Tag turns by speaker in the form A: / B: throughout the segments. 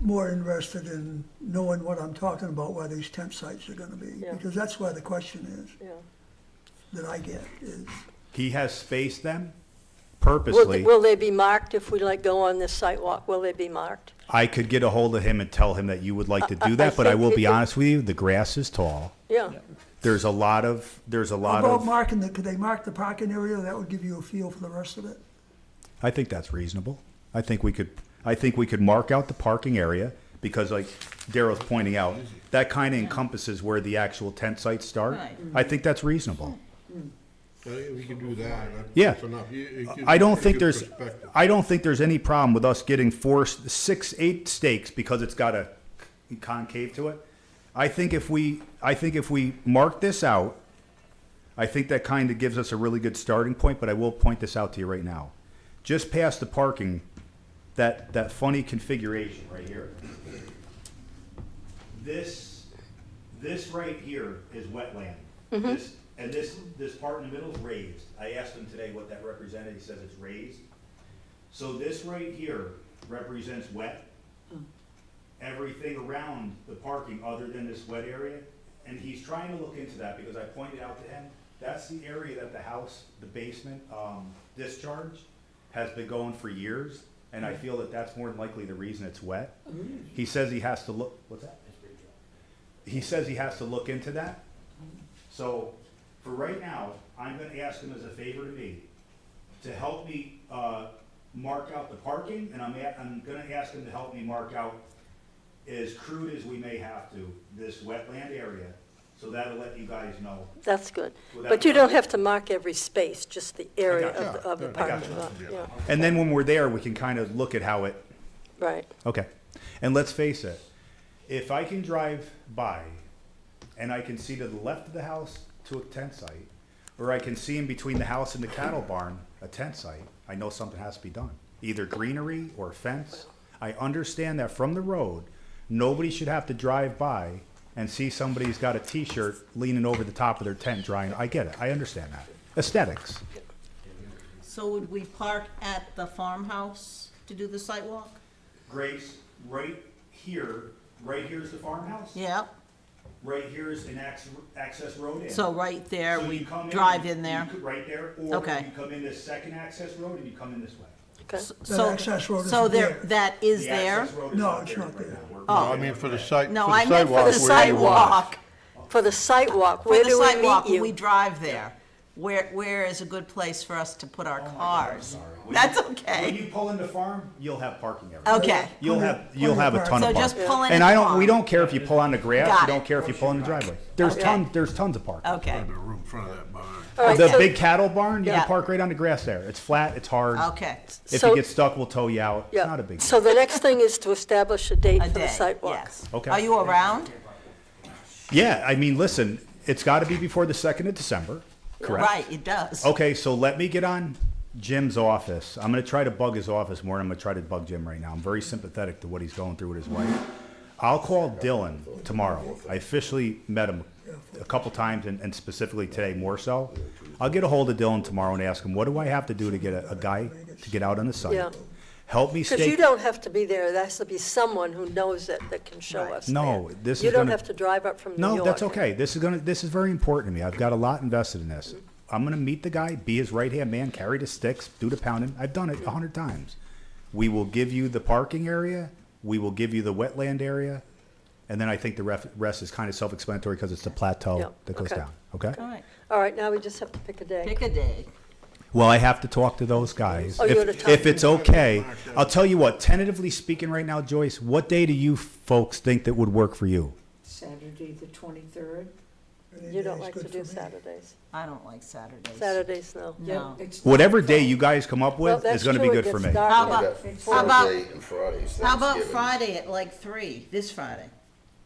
A: more interested in knowing what I'm talking about, where these tent sites are gonna be.
B: Yeah.
A: Because that's where the question is,
B: yeah.
A: that I get, is,
C: He has spaced them
B: Will,
C: purposely.
B: will they be marked if we like go on this sidewalk? Will they be marked?
C: I could get a hold of him and tell him that you would like to
B: I- I
C: do that, but I will
B: think
C: be
B: it-
C: honest with you, the grass is tall.
B: Yeah,
C: There's a lot of, there's a
A: How
C: lot
A: about
C: of,
A: marking the, could they mark the parking area? That would give you a feel for the rest of it.
C: I think that's reasonable. I think we could, I think we could mark out the parking area because like Darrell's pointing out, that kind of encompasses where the actual tent sites start.
D: Right.
C: I think that's reasonable.
E: I think We can do that. That's
C: Yeah.
E: enough. You- it gives-
C: I don't
E: it
C: think
E: gives
C: there's,
E: perspective.
C: I don't think there's any problem with us getting four, six, eight stakes because it's got a concave to it. I think if we, I think if we mark this out, I think that kind of gives us a really good starting point, but I will point this out to you right now. Just past the parking, that, that funny configuration right here. This, this right here is wetland. This, and this, this part in the middle is raised. I asked him today what that represented, he says it's raised. So this right here represents wet. Everything around the parking other than this wet area, and he's trying to look into that because I pointed out to him, that's the area that the house, the basement, um, discharge has been going for years, and I feel that that's more than likely the reason it's wet. He says he has to look, what's that? He says he has to look into that. So for right now, I'm gonna ask him as a favor to me, to help me, uh, mark out the parking, and I'm, a- I'm gonna ask him to help me mark out as crude as we may have to, this wetland area, so that'll let you guys know.
B: that's good.
C: Well, that-
B: But you don't have to mark every space, just the area
C: got
B: of, the- of the
C: I got
B: parking lot, yeah,
C: And then when we're there, we can kind of look at how it,
B: right.
C: okay. And let's face it, if I can drive by and I can see to the left of the house to a tent site, or I can see in between the house and the cattle barn, a tent site, I know something has to be done. Either greenery or fence. I understand that from the road, nobody should have to drive by and see somebody's got a T-shirt leaning over the top of their tent drying. I get it. I understand that. Aesthetics.
D: So would we park at the farmhouse to do the sidewalk?
C: Grace, right here, right here's the farmhouse.
D: Yeah,
C: Right here is an access, access road in.
D: so right there,
C: So you
D: we
C: come
D: drive
C: you-
D: in there.
C: you could- Right there, or
D: Okay.
C: you come in this second access road and you come in this way.
B: Okay,
D: So-
A: access road
D: So
A: isn't
D: there,
A: there.
D: that is
C: The
D: there? Oh.
C: access road is
A: No, it's not
C: right
A: there.
C: now. We're-
E: No, I mean, for the site, for
D: No,
E: the
D: I meant for the
E: sidewalk. where you walk.
D: sidewalk.
B: for the sidewalk,
D: For
B: where
D: the
B: do we
D: sidewalk,
B: meet
D: when we
B: you?
D: drive there. Where, where is a good place for us to
C: Oh
D: put our cars?
C: When
D: That's
C: you- When
D: okay.
C: you pull in the farm, you'll have parking everywhere.
D: Okay,
C: You'll have, you'll have a ton
D: so
C: of
D: just
C: parking.
D: pull in
C: And
D: a
C: I don't,
D: car.
C: we don't care if you pull on the grass,
D: Got
C: we
D: it.
C: don't care if you pull in the driveway. There's
D: Okay.
C: tons, there's tons of parking.
D: Okay,
E: The room in front of that barn.
B: All right,
C: The
B: so-
C: big cattle barn, you can
D: Yeah.
C: park right on the grass there. It's flat, it's hard.
D: okay.
C: If
B: So-
C: you get stuck, we'll tow you out. It's
B: yeah.
C: not a big.
B: So the next thing is to establish a date
D: A
B: for the
D: day,
B: sidewalk.
D: yes.
C: Okay.
D: Are you around?
C: Yeah, I mean, listen, it's got to be before the second of December, correct?
D: Right, it does.
C: Okay, so let me get on Jim's office. I'm gonna try to bug his office more. and I'm gonna try to bug Jim right now. I'm very sympathetic to what he's going through with his wife. I'll call Dylan tomorrow. I officially met him a couple times and, and specifically today more so. I'll get a hold of Dylan tomorrow and ask him, what do I have to do to get a, a guy to get out on the
B: Yeah.
C: site? Help me stay.
B: Because you don't have to be there, there has to be someone who knows it that can show
D: Right.
B: us.
C: No,
B: there.
C: this
B: You
C: is
B: don't
C: gonna-
B: have to drive up from New York.
C: No, that's okay. This is gonna, this is very important to me. I've got a lot invested in this. I'm gonna meet the guy, be his right-hand man, carry the sticks, do the pounding. I've done it a hundred times. We will give you the parking area, we will give you the wetland area, and then I think the ref, rest is kind of self-explanatory because it's the
B: Yeah,
C: plateau that goes
B: okay.
C: down, okay?
D: All right,
B: All right, now we just have to pick a day.
D: pick a day.
C: Well, I have to talk to those guys.
B: Oh, you gotta
C: If,
B: talk
C: if
B: to
C: it's okay, I'll tell you what, tentatively speaking right now, Joyce, what day do you folks think that would work for you?
F: Saturday, the twenty-third?
A: Any
B: You don't
A: day's
B: like
A: good
B: to do
A: for me.
B: Saturdays.
D: I don't like Saturdays.
B: Saturdays, no.
D: No.
C: Whatever day you guys come up
B: Well,
C: with
B: that's
C: is gonna be
B: true, it
C: good for
B: gets
C: me.
B: dark.
D: How about, how about,
G: Thursday and Fridays,
D: how about
G: Thanksgiving.
D: Friday at like three, this Friday?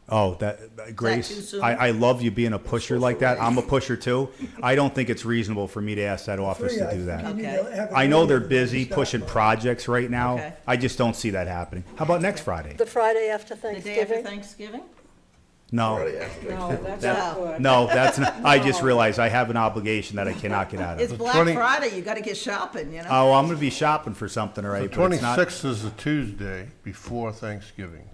C: Oh, that
D: too
C: Grace,
D: soon?
C: I, I love you being a pusher like that. I'm a pusher too. I don't think it's reasonable for me to ask that office to
A: Three, I
C: do
A: think
C: that.
A: you need
D: Okay.
A: to have a
C: I know they're
A: meeting.
C: busy pushing projects right
D: Okay.
C: now. I just don't see that happening. How about next Friday?
B: The Friday after
D: The day after
B: Thanksgiving?
D: Thanksgiving?
C: No,
G: Friday after
F: No, that's
D: That-
F: not good.
C: no, that's not, I just realized I have an obligation that I cannot get out
D: It's
C: of.
D: Black
E: 20
D: Friday, you gotta get shopping, you know?
C: Oh, I'm gonna be shopping for something, all
E: The
C: right? but it's not-
E: twenty-sixth is a Tuesday before Thanksgiving.